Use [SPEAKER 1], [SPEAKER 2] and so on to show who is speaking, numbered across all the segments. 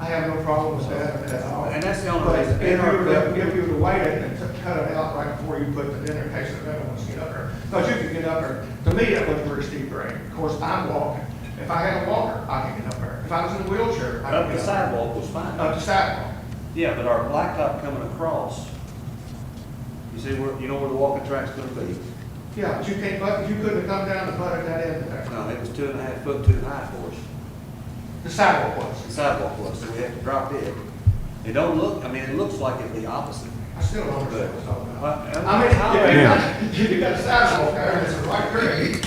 [SPEAKER 1] I have no problem with that at all.
[SPEAKER 2] And that's the only
[SPEAKER 1] But
[SPEAKER 2] reason.
[SPEAKER 1] if you were, to- if you were to wait it and t- cut it out right before you put it in there, in case the other ones get up there, because you can get up there, to me, it looks pretty steep grade. Of course, I'm walking. If I had a walker, I could get up there. If I was in a wheelchair, I
[SPEAKER 2] Up
[SPEAKER 1] could
[SPEAKER 2] the
[SPEAKER 1] get up
[SPEAKER 2] sidewalk was
[SPEAKER 1] there. Up
[SPEAKER 2] fine.
[SPEAKER 1] the sidewalk.
[SPEAKER 2] Yeah, but our blacktop coming across, you see where, you know where the walking track's gonna be?
[SPEAKER 1] Yeah, but you can't, but you couldn't have come down and butted that in there.
[SPEAKER 2] No, it was two and a half foot too high for us.
[SPEAKER 1] The sidewalk was.
[SPEAKER 2] The sidewalk was, so we had to drop it. It don't look, I mean, it looks like it'd be opposite.
[SPEAKER 1] I still don't understand what's talking about.
[SPEAKER 2] But- uh,
[SPEAKER 1] I mean, if you got, if you got a sidewalk there, and it's a right curve,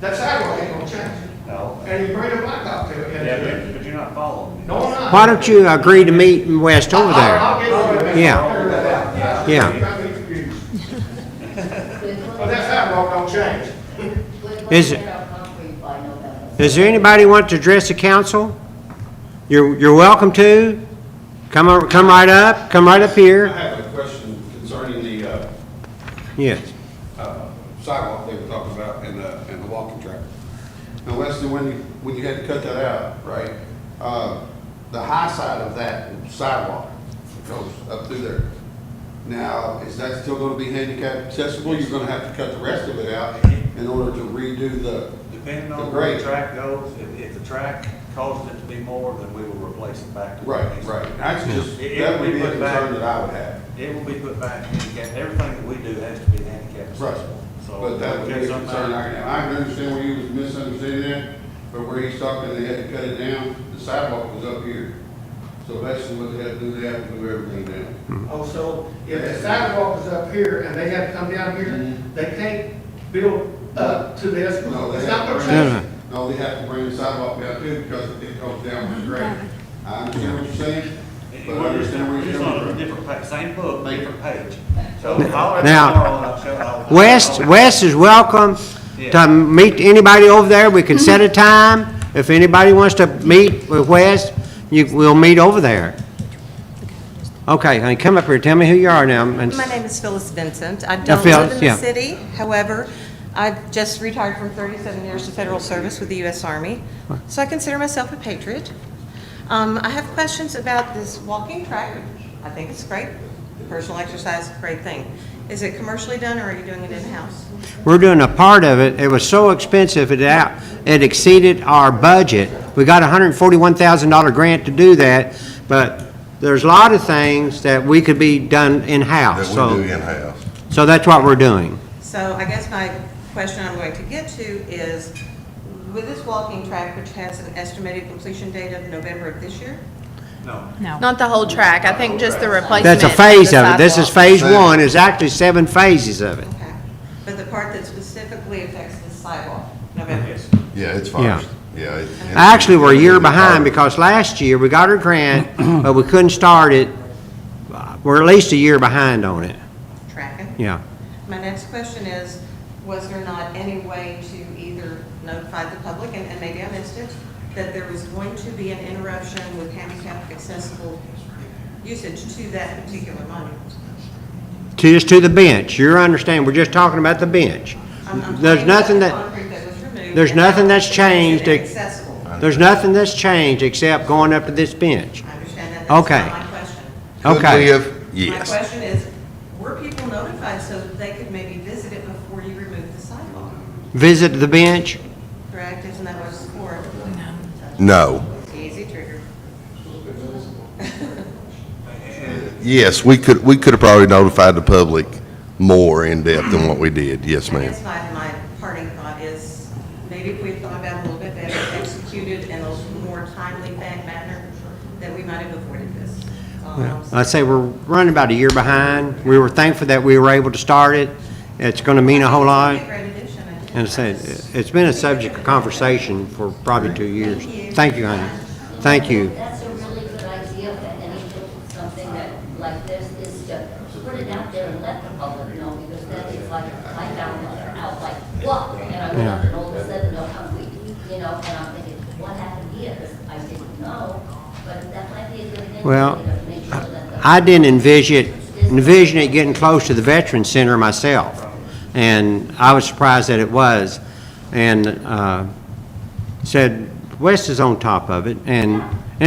[SPEAKER 1] that sidewalk ain't gonna change.
[SPEAKER 2] No,
[SPEAKER 1] And you bring a blacktop to it. and-
[SPEAKER 2] yeah, but- but you're not following me.
[SPEAKER 1] No, I'm not.
[SPEAKER 3] Why don't you agree to meet in West over
[SPEAKER 1] I'll- I'll
[SPEAKER 3] there?
[SPEAKER 1] get over there.
[SPEAKER 3] Yeah.
[SPEAKER 1] I'll figure that out.
[SPEAKER 3] Yeah.
[SPEAKER 1] You got me confused. But that
[SPEAKER 4] Is
[SPEAKER 1] sidewalk don't change.
[SPEAKER 3] Is it- Does there anybody want to address the council? You're, you're welcome to. Come, o- come right up, come right up
[SPEAKER 5] I
[SPEAKER 3] here.
[SPEAKER 5] have a question concerning the uh,
[SPEAKER 3] Yes.
[SPEAKER 5] uh, sidewalk they were talking about and the, and the walking track. Now Leslie, when you, when you had to cut that out, right, uh, the high side of that sidewalk goes up through there. Now, is that still gonna be handicap accessible? You're gonna have to cut the rest of it out in order to redo the,
[SPEAKER 2] Depending
[SPEAKER 5] The
[SPEAKER 2] on where the
[SPEAKER 5] grade.
[SPEAKER 2] track goes, if, if the track causes it to be more, then we will replace it back to. what it
[SPEAKER 5] right,
[SPEAKER 2] needs to
[SPEAKER 5] right. That's just,
[SPEAKER 2] It- it
[SPEAKER 5] that would
[SPEAKER 2] would
[SPEAKER 5] be a
[SPEAKER 2] put back-
[SPEAKER 5] concern that I would have.
[SPEAKER 2] be. It will be put back handicap, everything that we do has to be handicap
[SPEAKER 5] Right,
[SPEAKER 2] accessible. So
[SPEAKER 5] but that would be a
[SPEAKER 2] if somebody-
[SPEAKER 5] concern, I can, I can understand where you was misunderstanding that, but where he's talking, they had to cut it down, the sidewalk was up here. So basically what they had to do, they had to do everything down.
[SPEAKER 1] Oh, so if the sidewalk is up here and they have to come down here, they can't build up to this.
[SPEAKER 5] No, they
[SPEAKER 1] It's
[SPEAKER 5] have
[SPEAKER 1] not
[SPEAKER 5] to
[SPEAKER 1] gonna
[SPEAKER 5] bring,
[SPEAKER 1] change.
[SPEAKER 3] No,
[SPEAKER 5] no, they have to bring the sidewalk down too, because it goes down with the grade. I understand what you're saying,
[SPEAKER 2] It-
[SPEAKER 5] but I
[SPEAKER 2] we're just-
[SPEAKER 5] understand where
[SPEAKER 2] we're
[SPEAKER 5] you're
[SPEAKER 2] just on a
[SPEAKER 5] coming from.
[SPEAKER 2] different page, same book,
[SPEAKER 5] Thank you.
[SPEAKER 2] different page. So I'll let
[SPEAKER 3] Now-
[SPEAKER 2] tomorrow and I'll show- I'll-
[SPEAKER 3] West,
[SPEAKER 2] I'll-
[SPEAKER 3] West is welcome
[SPEAKER 2] Yeah.
[SPEAKER 3] to meet anybody over there. We can set a time. If anybody wants to meet with West, you, we'll meet over there. Okay, honey, come up here. Tell me who you are now. and-
[SPEAKER 6] My name is Phyllis Vincent. I
[SPEAKER 3] Now,
[SPEAKER 6] don't
[SPEAKER 3] Phyllis,
[SPEAKER 6] live in the
[SPEAKER 3] yeah.
[SPEAKER 6] city. However, I've just retired from 37 years of federal service with the U.S. Army, so I consider myself a patriot. Um, I have questions about this walking track. I think it's great. Personal exercise, great thing. Is it commercially done, or are you doing it in-house?
[SPEAKER 3] We're doing a part of it. It was so expensive, it out, it exceeded our budget. We got a hundred and forty-one thousand dollar grant to do that, but there's a lot of things that we could be done
[SPEAKER 7] that
[SPEAKER 3] in-house,
[SPEAKER 7] we do
[SPEAKER 3] so,
[SPEAKER 7] in-house.
[SPEAKER 3] so that's what we're doing.
[SPEAKER 6] So I guess my question I'm going to get to is, with this walking track, which has an estimated completion date of November of this year,
[SPEAKER 2] No,
[SPEAKER 4] Not the whole track, I think just the replacement.
[SPEAKER 3] That's a phase of it. This is
[SPEAKER 4] sidewalk.
[SPEAKER 3] phase one. It's actually seven phases of it.
[SPEAKER 6] Okay, but the part that specifically affects the sidewalk, November.
[SPEAKER 2] yes.
[SPEAKER 7] Yeah, it's
[SPEAKER 3] Yeah.
[SPEAKER 7] first. Yeah. it- it's-
[SPEAKER 3] Actually, we're a year behind because last year, we got our grant, but we couldn't start it. We're at least a year behind on it,
[SPEAKER 6] Tracking.
[SPEAKER 3] yeah.
[SPEAKER 6] My next question is, was there not any way to either notify the public, and and maybe I missed it, that there was going to be an interruption with handicap accessible usage to that particular monument?
[SPEAKER 3] To, just to the bench. You understand, we're just talking about the bench.
[SPEAKER 6] I'm- I'm
[SPEAKER 3] There's
[SPEAKER 6] talking about
[SPEAKER 3] nothing
[SPEAKER 6] the
[SPEAKER 3] that-
[SPEAKER 6] concrete was removed
[SPEAKER 3] there's
[SPEAKER 6] and
[SPEAKER 3] nothing that's
[SPEAKER 6] that makes it
[SPEAKER 3] changed that-
[SPEAKER 6] Accessible.
[SPEAKER 3] There's nothing that's changed except going up to this bench.
[SPEAKER 6] I understand that. That's
[SPEAKER 3] Okay.
[SPEAKER 6] not my question.
[SPEAKER 7] Could
[SPEAKER 3] Okay.
[SPEAKER 7] we have-
[SPEAKER 6] My
[SPEAKER 7] Yes.
[SPEAKER 6] question is, were people notified so that they could maybe visit it before you removed the sidewalk?
[SPEAKER 3] Visit the bench?
[SPEAKER 6] Correct, isn't that what it's for?
[SPEAKER 7] No.
[SPEAKER 6] Easy trigger.
[SPEAKER 7] Yes, we could, we could have probably notified the public more in depth than what we did. Yes,
[SPEAKER 6] I
[SPEAKER 7] ma'am.
[SPEAKER 6] guess my, my parting thought is, maybe if we thought about it a little bit better, executed in a more timely fa- manner, that we might have avoided this. Um, That's all I'm saying.
[SPEAKER 3] I'd say we're running about a year behind. We were thankful that we were able to start it. It's gonna mean a whole lot.
[SPEAKER 6] It's a great addition, I think.
[SPEAKER 3] And I said, it's been a subject of conversation for probably two years. Thank you, honey. Thank you.
[SPEAKER 8] That's a really good idea, that anything, something that, like this, is to put it out there and let the public know, because that is like, I found out, like, what? And I went out and all of a sudden, no, I'm weak, you know, and I'm thinking, what happened here? I didn't know, but that might be a good thing.
[SPEAKER 3] Well,
[SPEAKER 8] you know, to make sure that the-
[SPEAKER 3] I didn't envision, it- envision it getting close to the Veterans Center myself, and I was surprised that it was, and uh, said, West is on top of it, and